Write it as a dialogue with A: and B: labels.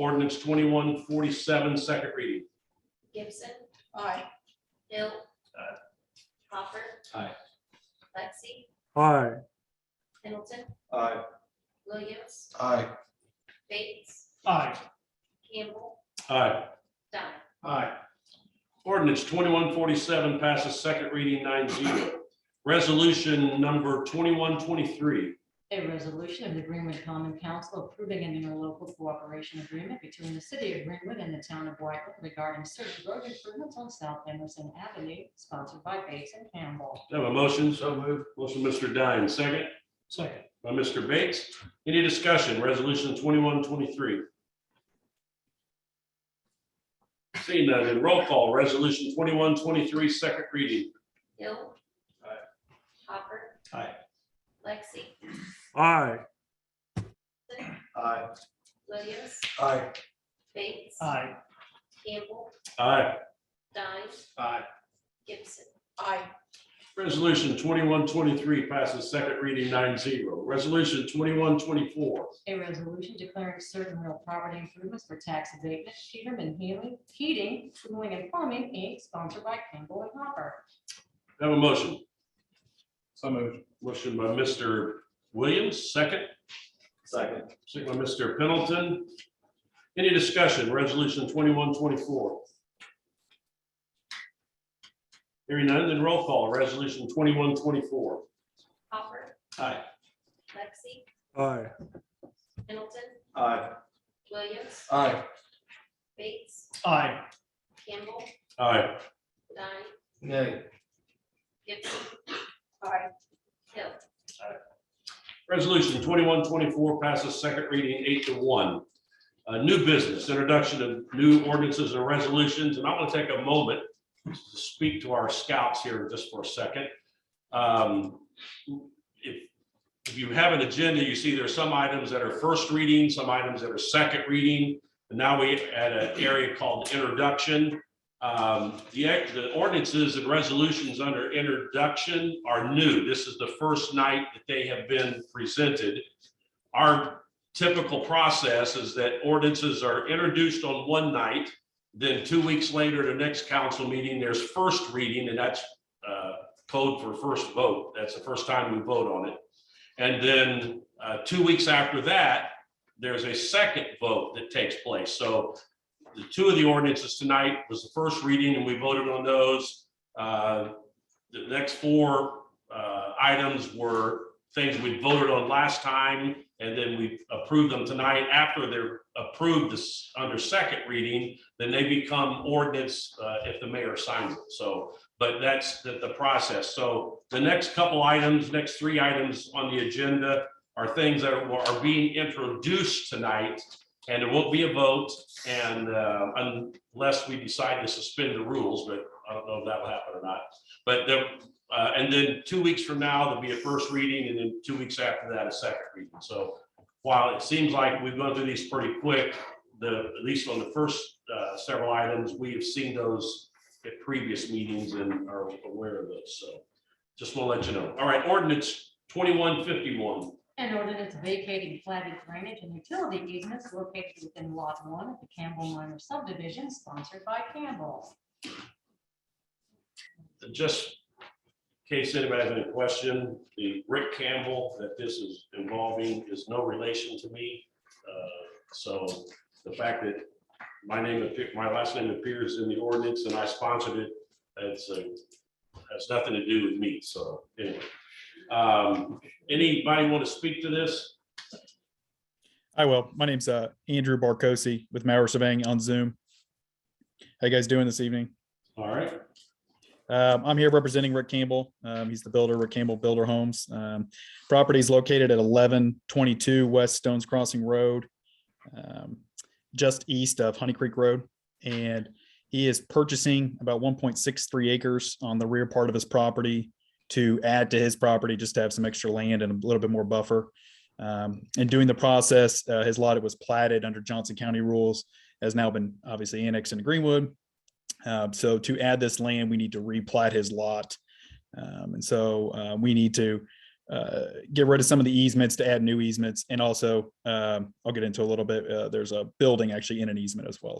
A: Ordinance twenty-one forty-seven, second reading.
B: Gibson,
C: aye,
B: Hill.
A: Aye.
B: Hopper.
A: Aye.
B: Lexi,
D: aye,
B: Pendleton,
E: Aye.
B: Williams,
E: Aye.
B: Bates,
A: Aye.
B: Campbell,
A: Aye.
B: Dunn.
A: Aye. Ordinance twenty-one forty-seven passes second reading nine zero. Resolution number twenty-one twenty-three.
F: A resolution of the Greenwood Common Council approving an interlocal cooperation agreement between the city of Greenwood and the town of Whitewood regarding certain road improvements on South Emerson Avenue, sponsored by Bates and Campbell.
A: Do I have a motion?
E: So moved.
A: Motion, Mr. Dine, second. Second. By Mr. Bates. Any discussion? Resolution twenty-one twenty-three. Seeing none, then roll call. Resolution twenty-one twenty-three, second reading.
B: Hill.
A: Aye.
B: Hopper.
A: Aye.
B: Lexi,
D: aye,
E: Aye.
B: Williams,
E: Aye.
B: Bates.
A: Aye.
B: Campbell,
A: Aye.
B: Dunn,
A: Aye.
B: Gibson,
C: aye,
A: Resolution twenty-one twenty-three passes second reading nine zero. Resolution twenty-one twenty-four.
F: A resolution declaring certain real property improvements for tax abatement, Peterman Healing, Heating, Cooling and Plumbing, Inc., sponsored by Campbell and Hopper.
A: Have a motion.
E: So moved.
A: Motion by Mr. Williams, second.
E: Second.
A: Second by Mr. Pendleton. Any discussion? Resolution twenty-one twenty-four. Hearing none, then roll call. Resolution twenty-one twenty-four.
B: Hopper,
A: Aye.
B: Lexi,
D: aye,
B: Pendleton,
E: Aye.
B: Williams,
E: Aye.
B: Bates,
A: Aye.
B: Campbell,
A: Aye.
B: Dunn,
E: Nay.
B: Gibson,
C: aye,
B: Hill.
A: Resolution twenty-one twenty-four passes second reading eight to one. Uh, new business, introduction of new ordinances and resolutions, and I want to take a moment to speak to our scouts here just for a second. Um, If, if you have an agenda, you see there are some items that are first reading, some items that are second reading. And now we add an area called introduction. Um, The, act- the ordinances and resolutions under introduction are new. This is the first night that they have been presented. Our typical process is that ordinances are introduced on one night. Then two weeks later, the next council meeting, there's first reading, and that's uh, code for first vote. That's the first time we vote on it. And then uh, two weeks after that, there's a second vote that takes place. So the two of the ordinances tonight was the first reading, and we voted on those. Uh, The next four uh, items were things we voted on last time, and then we approved them tonight. After they're approved this, under second reading, then they become ordinance uh, if the mayor signs it. So, but that's the, the process. So the next couple items, next three items on the agenda are things that are are being introduced tonight, and there won't be a vote. And uh, unless we decide to suspend the rules, but I don't know if that will happen or not. But there, uh, and then two weeks from now, there'll be a first reading and then two weeks after that, a second reading. So while it seems like we've gone through these pretty quick, the, at least on the first uh, several items, we have seen those at previous meetings and are aware of those. So just want to let you know. All right, ordinance twenty-one fifty-one.
F: An ordinance vacating platted drainage and utility easements located within lot one of the Campbell Minor subdivision sponsored by Campbell.
A: just in case anybody has any question, the Rick Campbell that this is involving is no relation to me. Uh, So the fact that my name, appe- my last name appears in the ordinance and I sponsored it, it's, uh, has nothing to do with me, so anyway. Um, Anybody want to speak to this?
G: I will. My name's uh, Andrew Barkosi with Mauer Surveying on Zoom. How you guys doing this evening?
A: All right,
G: Um, I'm here representing Rick Campbell. Um, he's the builder, Rick Campbell Builder Homes. Um, property is located at 1122 West Stones Crossing Road, um, just east of Honey Creek Road. And he is purchasing about 1.63 acres on the rear part of his property to add to his property, just to have some extra land and a little bit more buffer. Um, and doing the process, uh, his lot, it was platted under Johnson County rules, has now been obviously annexed into Greenwood. Um, so to add this land, um, we need to replat his lot. Um, and so uh, we need to uh, get rid of some of the easements to add new easements. And also, um, I'll get into a little bit, uh, there's a building actually in an easement as well.